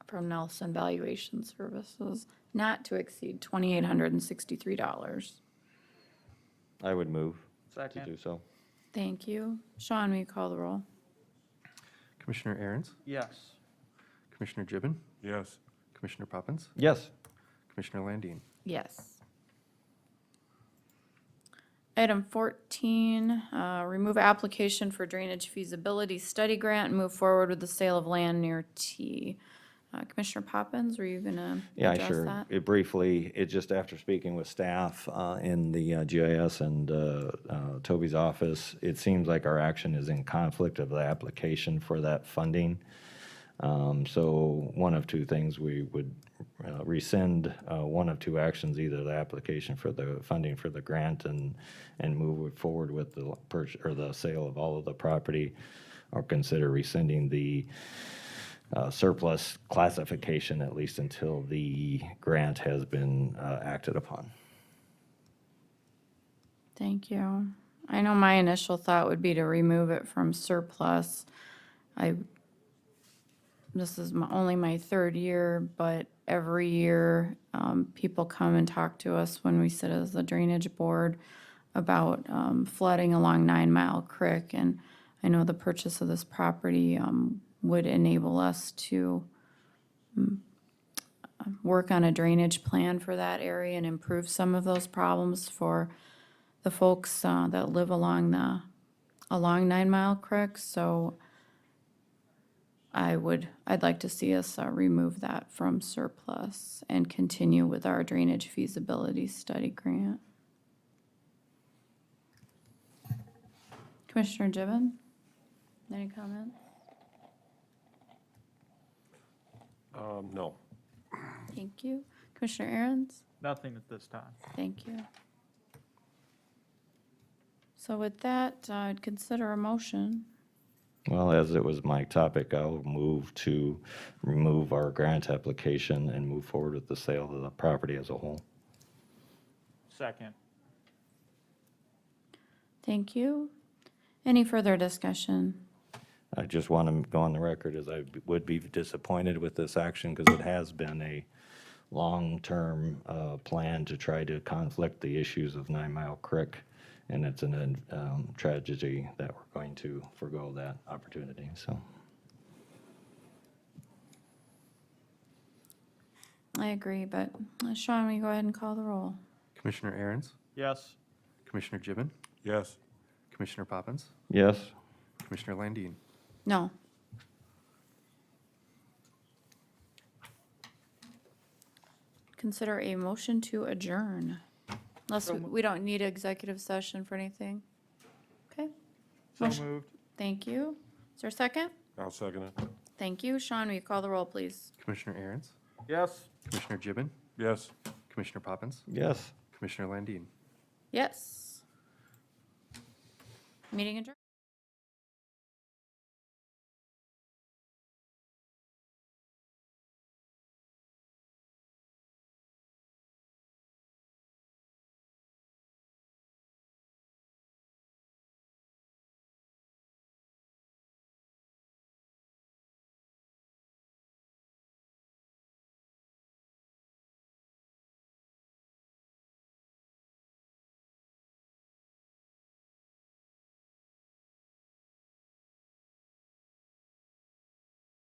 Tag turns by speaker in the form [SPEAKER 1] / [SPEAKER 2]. [SPEAKER 1] from Nelson Valuation Services, not to exceed twenty-eight hundred and sixty-three dollars.
[SPEAKER 2] I would move to
[SPEAKER 3] Second.
[SPEAKER 2] do so.
[SPEAKER 1] Thank you. Sean, will you call the roll?
[SPEAKER 4] Commissioner Aaron's,
[SPEAKER 3] Yes.
[SPEAKER 4] Commissioner Gibbon,
[SPEAKER 5] yes,
[SPEAKER 4] Commissioner Poppins,
[SPEAKER 2] Yes,
[SPEAKER 4] Commissioner Landine.
[SPEAKER 1] Yes. Item 14, uh, remove application for drainage feasibility study grant and move forward with the sale of land near T. Uh, Commissioner Poppins, were you going to
[SPEAKER 2] yeah,
[SPEAKER 1] address
[SPEAKER 2] sure.
[SPEAKER 1] that?
[SPEAKER 2] It briefly, it just after speaking with staff uh, in the uh, GIS and uh, uh, Toby's office, it seems like our action is in conflict of the application for that funding. Um, So one of two things, we would uh, rescind uh, one of two actions, either the application for the funding for the grant and, and move forward with the purchase, or the sale of all of the property, or consider rescinding the uh, surplus classification, at least until the grant has been uh, acted upon.
[SPEAKER 1] Thank you. I know my initial thought would be to remove it from surplus. I, this is my, only my third year, but every year, um, people come and talk to us when we sit as the drainage board about, um, flooding along Nine Mile Creek. And I know the purchase of this property, um, would enable us to mm, uh, work on a drainage plan for that area and improve some of those problems for the folks uh, that live along the, along Nine Mile Creek, so I would, I'd like to see us uh, remove that from surplus and continue with our drainage feasibility study grant. Commissioner Gibbon, any comment?
[SPEAKER 5] um, no.
[SPEAKER 1] Thank you. Commissioner Aaron's?
[SPEAKER 3] Nothing at this time.
[SPEAKER 1] Thank you. So with that, I'd consider a motion.
[SPEAKER 2] Well, as it was my topic, I'll move to remove our grant application and move forward with the sale of the property as a whole.
[SPEAKER 3] Second.
[SPEAKER 1] Thank you. Any further discussion?
[SPEAKER 2] I just want to go on the record as I would be disappointed with this action because it has been a long-term uh, plan to try to conflict the issues of Nine Mile Creek, and it's a tragedy that we're going to forego that opportunity, so.
[SPEAKER 1] I agree, but uh, Sean, will you go ahead and call the roll?
[SPEAKER 4] Commissioner Aaron's,
[SPEAKER 3] Yes.
[SPEAKER 4] Commissioner Gibbon,
[SPEAKER 5] Yes,
[SPEAKER 4] Commissioner Poppins,
[SPEAKER 2] Yes,
[SPEAKER 4] Commissioner Landine.
[SPEAKER 1] No. Consider a motion to adjourn. Unless we- we don't need executive session for anything. Okay,
[SPEAKER 3] So
[SPEAKER 1] Motion-
[SPEAKER 3] moved.
[SPEAKER 1] thank you. Is there a second?
[SPEAKER 5] I'll second it.
[SPEAKER 1] Thank you. Sean, will you call the roll, please?
[SPEAKER 4] Commissioner Aaron's,
[SPEAKER 3] Yes.
[SPEAKER 4] Commissioner Gibbon,
[SPEAKER 5] Yes.
[SPEAKER 4] Commissioner Poppins,
[SPEAKER 2] yes.
[SPEAKER 4] Commissioner Landine.
[SPEAKER 1] Yes. Meeting adjourned.